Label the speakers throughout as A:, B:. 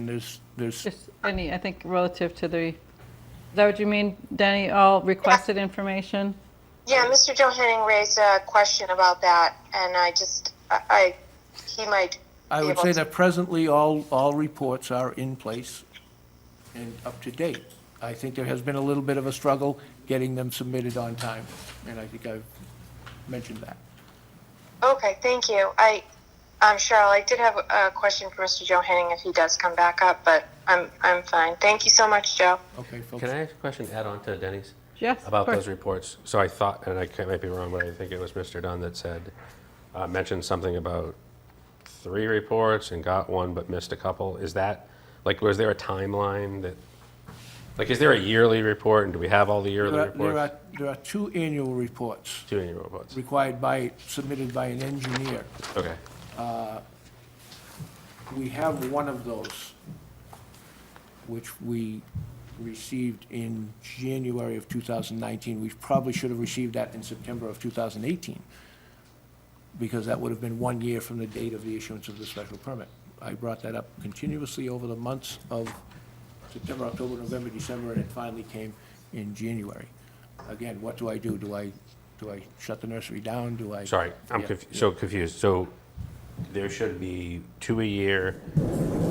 A: And There's, there's,
B: Just any, I think relative to the, is that what you mean, Danny, all requested information?
C: Yeah, Mr. Johanning raised a question about that, and I just, I, I he might.
A: I
C: be
A: would
C: able
A: say
C: to-
A: that presently, all, all reports are in place and up to date. I think there has been a little bit of a struggle getting them submitted on time, and I think I've mentioned that.
C: Okay, thank you. I, um, Cheryl, I did have a question for Mr. Johanning if he does come back up, but I'm, I'm fine. Thank you so much, Joe.
A: Okay, folks?
D: Can I ask a question to add on to Denny's?
B: Yes, of
D: About
B: course.
D: those reports. So I thought, and I can't- might be wrong, but I think it was Mr. Dunn that said, uh, mentioned something about three reports and got one but missed a couple. Is that, like, was there a timeline that, like, is there a yearly report and do we have all the yearly
A: There are- There are,
D: reports?
A: there are two annual reports
D: Two annual reports.
A: required by, submitted by an engineer.
D: Okay.
A: We have one of those, which we received in January of 2019. We probably should have received that in September of 2018, because that would have been one year from the date of the issuance of the special permit. I brought that up continuously over the months of September, October, November, December, and it finally came in January. Again, what do I do? Do I, do I shut the nursery down? Do I?
D: Sorry, I'm
A: Yeah,
D: conf-
A: yeah.
D: so confused. So there should be two a year,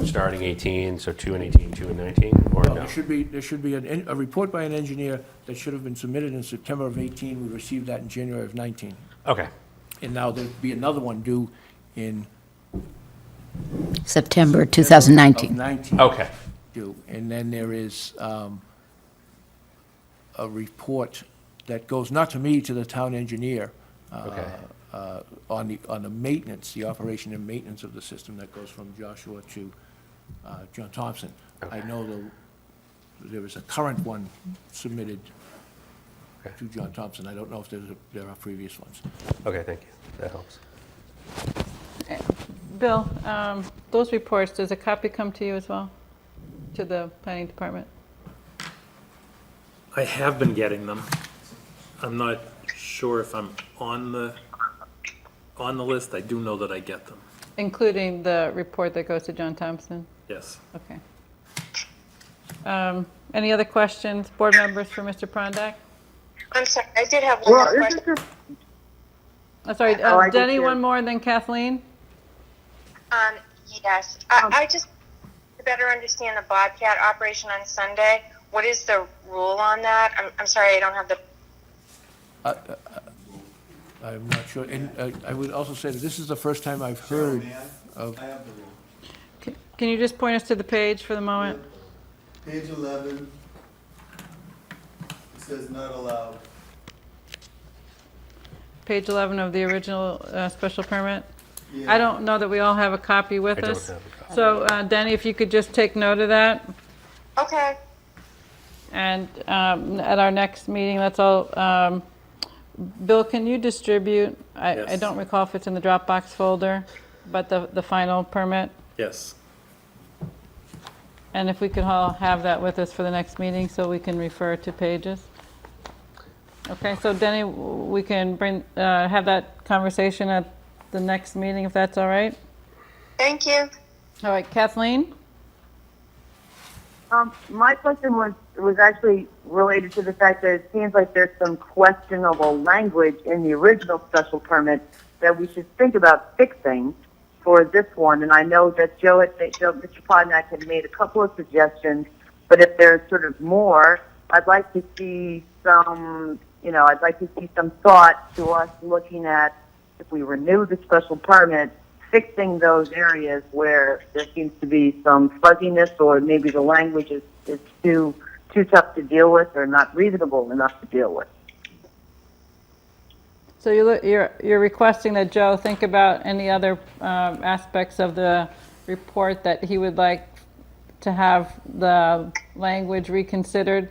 D: starting 18, so two in 18, two in 19, or
A: Well,
D: no?
A: There should be, there should be an en- a report by an engineer that should have been submitted in September of 18. We received that in January of 19.
D: Okay.
A: And now there'd be another one due in.
E: September
A: Of
E: 2019.
A: 19.
D: Okay.
A: Due. And then there is um, a report that goes not to me, to the town engineer. uh,
D: Okay.
A: uh, On the, on the maintenance, the operation and maintenance of the system that goes from Joshua to uh, John Thompson. I know the, there is a current one submitted
D: Okay.
A: to John Thompson. I don't know if there's, a- there are previous ones.
D: Okay, thank you. That helps.
B: Bill, um, those reports, does a copy come to you as well? To the planning department?
F: I have been getting them. I'm not sure if I'm on the, on the list. I do know that I get them.
B: Including the report that goes to John Thompson?
F: Yes.
B: Okay. Um, Any other questions, board members for Mr. Prondak?
C: I'm sorry, I did have one
G: Well,
C: more
G: isn't
C: question.
G: there,
B: I'm sorry,
G: Oh, I
B: uh,
G: did
B: Denny,
G: too.
B: one more, and then Kathleen?
C: Um, yes, I, I just, to better understand the Bobcat operation on Sunday, what is the rule on that? I'm, I'm sorry, I don't have the,
A: I'm not sure. And uh, I would also say that this is the first time I've heard of,
H: I have the rule.
B: Can- Can you just point us to the page for the moment?
H: Page eleven, it says not allowed.
B: Page 11 of the original uh, special permit?
H: Yeah.
B: I don't know that we all have a copy with
D: I don't
B: us.
D: have a copy.
B: So uh, Danny, if you could just take note of that,
C: okay,
B: and um, at our next meeting, that's all. um, Bill, can you distribute, I I
F: Yes.
B: don't recall if it's in the Dropbox folder, but the the final permit?
F: Yes.
B: And if we could all have that with us for the next meeting, so we can refer to pages? Okay, so Denny, w- we can bring, uh, have that conversation at the next meeting, if that's all right?
C: thank you.
B: All right, Kathleen?
G: um, my question was, was actually related to the fact that it seems like there's some questionable language in the original special permit that we should think about fixing for this one. And I know that Joe, had- that Joe, Mr. Podnack had made a couple of suggestions, but if there's sort of more, I'd like to see some, you know, I'd like to see some thought to us looking at if we renew the special permit, fixing those areas where there seems to be some fuzziness or maybe the language is, is too too tough to deal with or not reasonable enough to deal with.
B: So you're, lo- you're you're requesting that Joe think about any other um, aspects of the report that he would like to have the language reconsidered?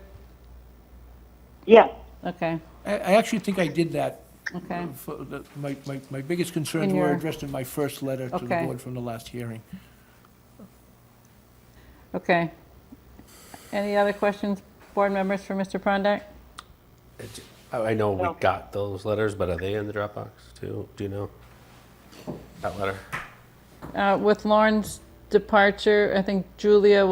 G: Yes.
B: Okay,
A: I I actually think I did that.
B: okay.
A: for the- My, my, my biggest concerns
B: In
A: were
B: your-
A: addressed in my first letter to the
B: Okay.
A: board from the last hearing.
B: Okay. Any other questions, board members, for Mr. Prondak?
D: It- I I know we got those letters, but are they in the Dropbox too? Do you know? That letter?
B: Uh, With Lauren's departure, I think Julia